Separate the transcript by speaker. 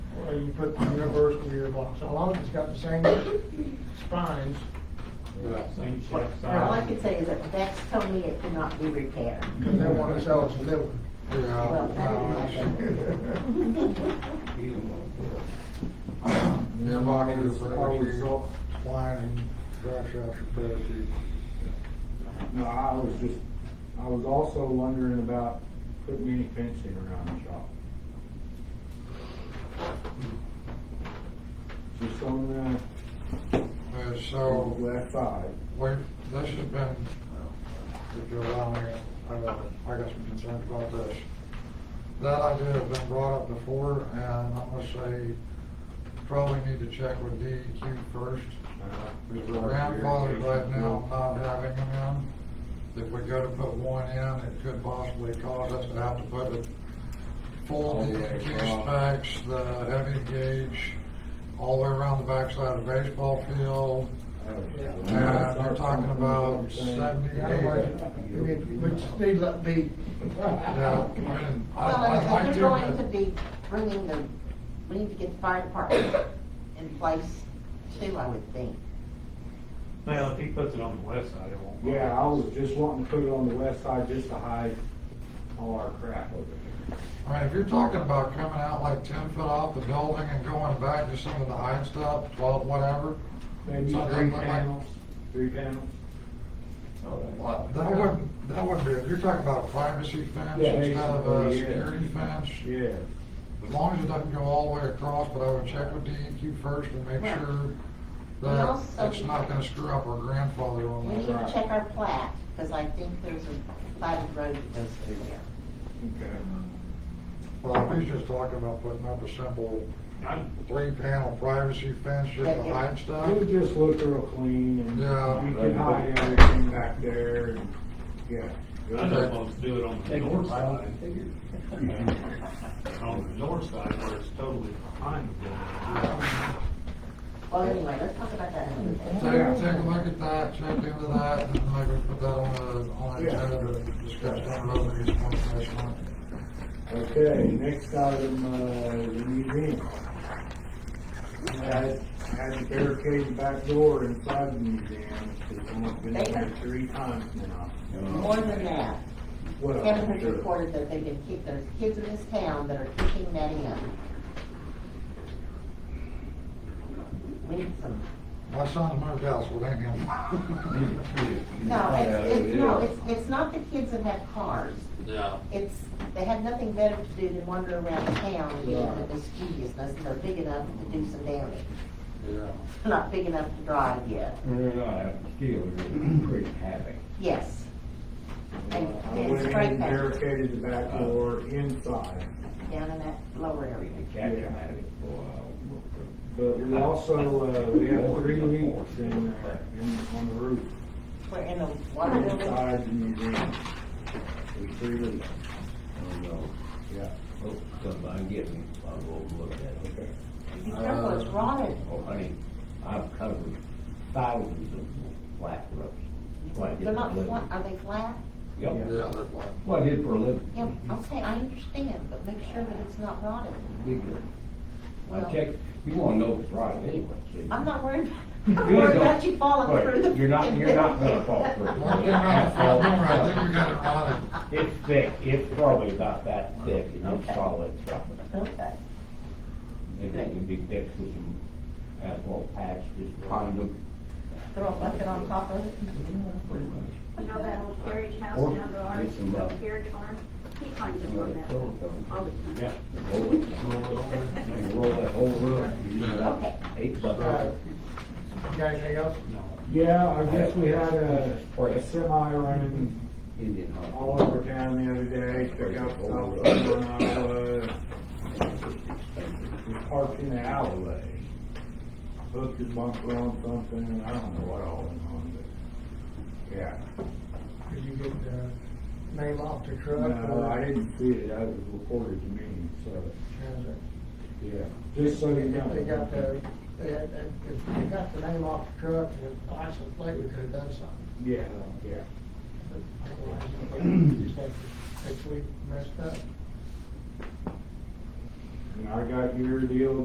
Speaker 1: you put the university or block, so long as it's got the same spines.
Speaker 2: Same shape,
Speaker 3: Now, all I
Speaker 2: size.
Speaker 3: can say is that that's told me it cannot be repaired.
Speaker 1: Cause they wanna sell us a new one.
Speaker 3: Well, I don't like
Speaker 4: Yeah, mine is, I was go-
Speaker 1: Lining, brush up.
Speaker 4: No, I was just, I was also wondering about putting any fencing around the shop. Just on
Speaker 5: Uh,
Speaker 4: the
Speaker 5: so,
Speaker 4: left side.
Speaker 5: we, this has been, if you allow me, I got, I got some concerns about this. That idea has been brought up before, and I'm gonna say, probably need to check with DEQ first. Because we're grandfathered right now, not having them in. If we go to put one in, it could possibly cause us to have to put the full DEQ specs, the heavy gauge, all the way around the backside of the baseball field,
Speaker 4: Yeah,
Speaker 5: we're talking about
Speaker 1: We need, we just need to let be.
Speaker 5: Yeah, I mean, I-
Speaker 3: Well, and
Speaker 5: I'd
Speaker 3: if
Speaker 5: like
Speaker 3: you're going to
Speaker 5: to,
Speaker 3: be bringing the, we need to get the fire department in place too, I would think.
Speaker 2: Well, if he puts it on the west side, it won't. work.
Speaker 4: Yeah, I was just wanting to put it on the west side just to hide all our crap over there.
Speaker 5: I mean, if you're talking about coming out like ten foot off the building and going back to some of the high stuff, twelve, whatever,
Speaker 4: Maybe
Speaker 5: Something
Speaker 4: three
Speaker 5: like-
Speaker 4: panels, three panels.
Speaker 5: well, Uh, that wouldn't, that wouldn't be, if you're talking about a privacy fence
Speaker 4: Yeah,
Speaker 5: instead of a
Speaker 4: basically, yeah.
Speaker 5: uh, security fence,
Speaker 4: Yeah.
Speaker 5: as long as it doesn't go all the way across, but I would check with DEQ first and make
Speaker 3: Right.
Speaker 5: sure
Speaker 3: And
Speaker 5: that
Speaker 3: also-
Speaker 5: it's not gonna screw up our grandfather on
Speaker 3: We
Speaker 5: that.
Speaker 3: need to check our plat, because I think there's a platted road that goes through there.
Speaker 4: Okay.
Speaker 5: Well, he's just talking about putting up a simple
Speaker 2: I-
Speaker 5: three panel privacy fence just to hide stuff.
Speaker 4: It would just look real clean and
Speaker 5: Yeah.
Speaker 4: we can hide everything back there and, yeah.
Speaker 2: I just want to do it on the north side. On the north side where it's totally behind the building.
Speaker 3: Well, anyway, let's talk about that another day.
Speaker 5: Take, take a look at that, check into that, and then maybe put that on the, on the agenda to discuss down the road, maybe it's one last one.
Speaker 4: Okay, next item, uh, the museum. I had, had to barricade the back door inside the museum, because I've been in there three times now.
Speaker 3: More than that,
Speaker 4: Well,
Speaker 3: Kevin has
Speaker 4: sure.
Speaker 3: reported that they can keep, there's kids in this town that are kicking that in. We need some,
Speaker 5: My son's moved out, so it ain't him.
Speaker 3: no, it's, it's, no, it's, it's not the kids that have cars.
Speaker 6: Yeah.
Speaker 3: It's, they have nothing better to do than wander around town and get into the mischievous, unless they're big enough to do some damage.
Speaker 6: Yeah.
Speaker 3: They're Not big enough to drive yet,
Speaker 7: They're not, still, they're pretty happy.
Speaker 3: yes. And,
Speaker 4: I
Speaker 3: and
Speaker 4: went in
Speaker 3: straight
Speaker 4: and
Speaker 3: back,
Speaker 4: barricaded the back door inside.
Speaker 3: down in that lower area.
Speaker 7: The cat come out of it for a while.
Speaker 4: But we also, uh, we have three leaks in, uh, in, on the roof,
Speaker 3: We're in the water
Speaker 4: Uh,
Speaker 3: building,
Speaker 4: inside the museum. There's three leaks.
Speaker 7: I don't know.
Speaker 4: Yeah.
Speaker 7: Oh, come by and get me, I'll go look at it.
Speaker 4: Okay.
Speaker 3: be careful, it's rotted.
Speaker 7: Oh, honey, I've covered thousands of flat roofs. Why, I did
Speaker 3: They're
Speaker 7: for a
Speaker 3: not,
Speaker 7: living.
Speaker 3: flat. are they flat?
Speaker 7: Yep,
Speaker 5: Yeah, that's why.
Speaker 7: what I did for a living.
Speaker 3: Yeah, okay, I understand, but make sure that it's not rotted.
Speaker 7: Big deal.
Speaker 3: Well-
Speaker 7: I check, you wanna know if it's right anyway. see?
Speaker 3: I'm not worried, I'm
Speaker 7: Good,
Speaker 3: worried about
Speaker 7: though.
Speaker 3: you falling
Speaker 7: Right,
Speaker 3: through the.
Speaker 7: You're not, you're not gonna fall through.
Speaker 5: Well, you're not gonna fall through, I think we got it on it.
Speaker 7: It's thick, it's probably about that thick, and it's solid, solid.
Speaker 3: Okay,
Speaker 7: It can be fixed with some asphalt patch, just pound them.
Speaker 3: throw a bucket on top of it.
Speaker 7: Pretty much.
Speaker 8: You know that old carriage house
Speaker 7: Or
Speaker 8: down the
Speaker 7: get
Speaker 8: orange,
Speaker 7: some, uh,
Speaker 8: the carriage farm? He finds it
Speaker 7: Roll
Speaker 8: on
Speaker 7: it,
Speaker 8: that
Speaker 7: roll
Speaker 8: all the time.
Speaker 2: Yeah.
Speaker 7: it, roll it, and roll that whole roof, you need about eight buckets.
Speaker 1: You got anything else?
Speaker 4: Yeah, I guess we had a, a semi running
Speaker 7: Indian hot.
Speaker 4: all over town the other day, pick up South Over and Iowa. was uh, Parked in the alleyway. Hooked his bumper on something, and I don't know what all went on, but, yeah.
Speaker 1: Did you get the name off the truck?
Speaker 4: No, I didn't see it, I was reported to me, so, yeah, just so you know.
Speaker 1: They got the, they had, if they got the name off the truck and the license plate, we could have done something.
Speaker 4: Yeah, yeah.
Speaker 1: Next week messed up.
Speaker 4: And I got your deal